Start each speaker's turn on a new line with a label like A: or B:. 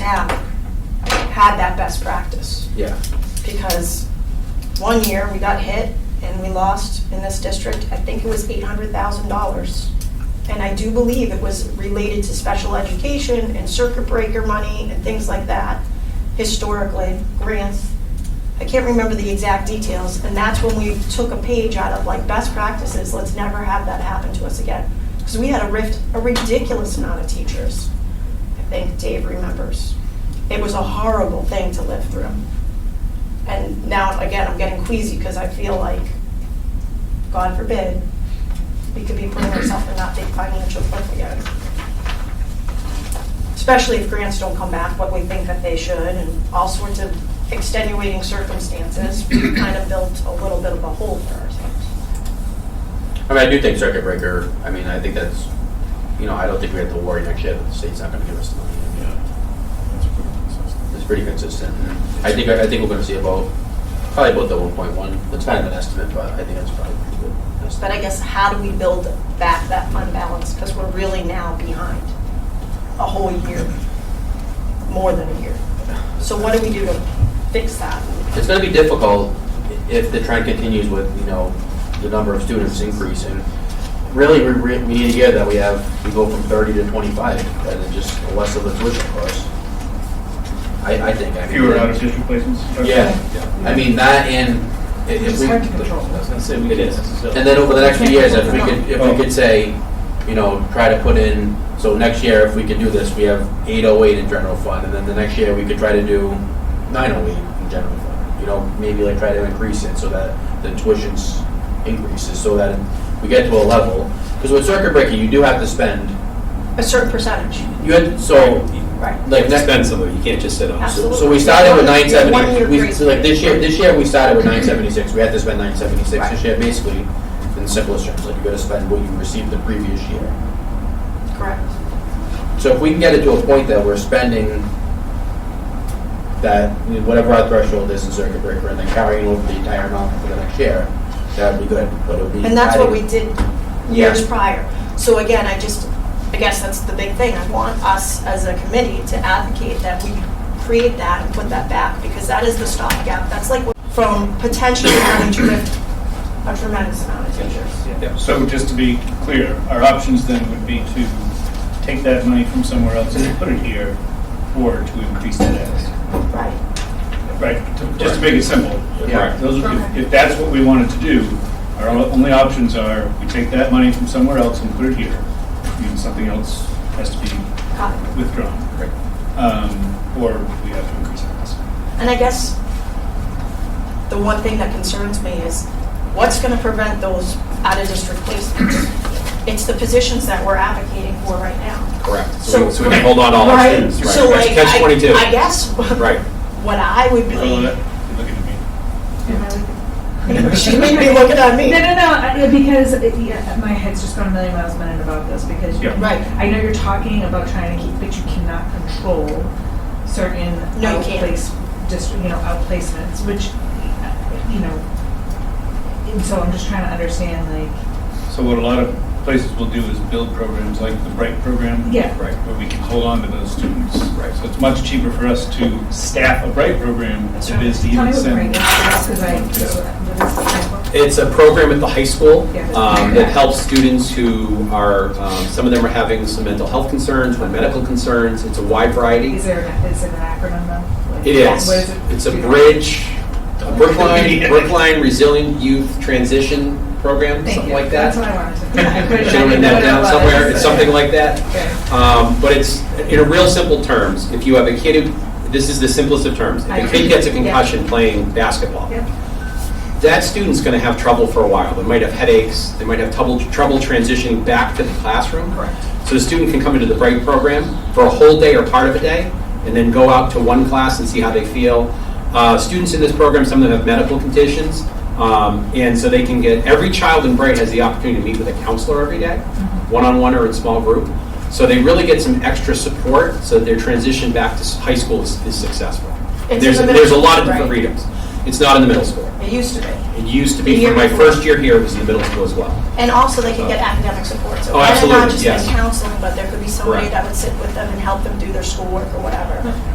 A: have had that best practice.
B: Yeah,
A: Because one year, we got hit and we lost in this district, I think it was $800,000. And I do believe it was related to special education and circuit breaker money and things like that, historically, grants. I can't remember the exact details, and that's when we took a page out of like best practices, let's never have that happen to us again. Because we had a rift, a ridiculous amount of teachers, I think Dave remembers. It was a horrible thing to live through. And now, again, I'm getting queasy because I feel like, God forbid, we could be putting ourselves in that big financial cliff again. Especially if grants don't come back what we think that they should and all sorts of extenuating circumstances, we kind of built a little bit of a hole for ourselves.
B: I mean, I do think circuit breaker, I mean, I think that's, you know, I don't think we have to worry next year that the state's not gonna give us the money. It's pretty consistent. I think, I think we're gonna see about, probably about the one point one, that's kind of an estimate, but I think that's probably a pretty good.
A: But
B: estimate.
A: I guess how do we build back that fund balance? Because we're really now behind a whole year, more than a year. So what do we do to fix that?
B: It's gonna be difficult if the trend continues with, you know, the number of students increasing. Really, we, re- we need to get that we have, we go from thirty to twenty-five, and it's just less of a tuition cost. I, I think, I mean.
C: Fewer out-of-district placements?
B: Yeah, I mean, that and i- if we.
D: I was gonna say, we
B: It
D: could.
B: is. And then over the next few years, if we could, if we
C: Oh.
B: could say, you know, try to put in, so next year, if we could do this, we have eight oh eight in general fund, and then the next year, we could try to do nine oh eight in general fund. You know, maybe like try to increase it so that the tuition's increases, so that we get to a level. Because with circuit breaker, you do have to spend,
A: A certain percentage,
B: you had, so,
A: right?
B: like, next,
D: Expensive, you can't just sit on.
A: Absolutely.
B: so we started with nine
A: One-year
B: seventy, we,
A: grace
B: so like this year,
A: period.
B: this year we started with nine seventy-six, we had to spend nine seventy-six
A: Right.
B: this year, basically, in simplest terms, like you gotta spend what you received the previous year.
A: Correct.
B: So if we can get it to a point that we're spending that, you know, whatever our threshold is in circuit breaker, and then carrying over the entire amount for the next year, that would be good, but it would be.
A: And that's what we
B: adding-
A: did years prior. So again, I just, I guess that's the big thing. I want us as a committee to advocate that we create that and put that back because that is the stopgap. That's like from potentially having to lift a tremendous amount of teachers.
D: Yeah.
C: So just to be clear, our options then would be to take that money from somewhere else and put it here, or to increase that as,
A: Right.
C: right? To- Just to make it simple.
B: Yeah.
C: Those, would- if-
A: Okay.
C: if that's what we wanted to do, our o- only options are, we take that money from somewhere else and put it here. I mean, something else has to be
A: Got it.
C: withdrawn. Um, Or we have to increase our cost.
A: And I guess the one thing that concerns me is what's going to prevent those out-of-district placements? It's the positions that we're advocating for right now.
D: Correct.
A: So-
D: So we- so we can hold on to all our
A: Right,
D: students.
A: So
D: Right.
A: like,
D: Catch- Catch
A: I-
D: twenty-two.
A: I guess
D: Right.
A: what I would
C: Look
A: be,
C: at me.
A: she made me looking at me.
E: No, no, no, I- because it- yeah, my head's just gone a million miles a minute about this because you-
C: Yeah.
A: Right.
E: I know you're talking about trying to keep, but you cannot control certain
A: No, you can't.
E: outplace, just, you know, outplacements, which, uh, you know, and so I'm just trying to understand like,
C: So what a lot of places will do is build programs like the Bright program.
E: Yeah.
C: Right, where we can hold on to those students.
D: Right.
C: So it's much cheaper for us to staff a Bright program than it is to
E: tell me
C: even
E: what
C: send.
E: break is, because I, uh, what is
C: Yeah.
E: the
D: It's a program at the high school
E: Yeah.
D: um, that helps students who are, um, some of them are having some mental health concerns, some medical concerns. It's a wide variety.
E: Is there, an- is it an acronym though? Like,
D: It is.
E: what it?
D: It's a
E: Do you know?
D: bridge, a Brookline, Brookline Resilient Youth Transition Program,
E: Thank
D: something
E: you.
D: like that.
E: That's what I wanted to. I couldn't-
D: Should have written
E: I
D: that
E: didn't know
D: down
E: what it
D: somewhere.
E: was.
D: It's something like that.
E: Okay.
D: Um, But it's, in a real simple terms, if you have a kid who, this is the simplest of terms,
E: I
D: if a kid gets a
E: agree. Yeah.
D: concussion playing basketball,
E: Yep.
D: that student's going to have trouble for a while. They might have headaches, they might have trouble, trouble transitioning back to the classroom.
E: Correct.
D: So the student can come into the break program for a whole day or part of a day, and then go out to one class and see how they feel. Uh, students in this program, some of them have medical conditions, um, and so they can get, every child in Bright has the opportunity to meet with a counselor every day,
A: Mm-hmm.
D: one-on-one or in small group. So they really get some extra support, so that their transition back to s- high school is is successful.
A: It's in
D: There's,
A: the middle
D: there's a lot of
A: school,
D: different
A: right?
D: freedoms. It's not in the middle school.
A: It used to be.
D: It used to
A: The
D: be,
A: year
D: for my
A: before.
D: first year here, it was in the middle school as well.
A: And also they could get academic support. So
D: Oh,
A: it might
D: absolutely,
A: Not just
D: yes.
A: be counseling, but there could be somebody
D: Correct.
E: Hmm.
A: that would sit with them and help them do their schoolwork or whatever.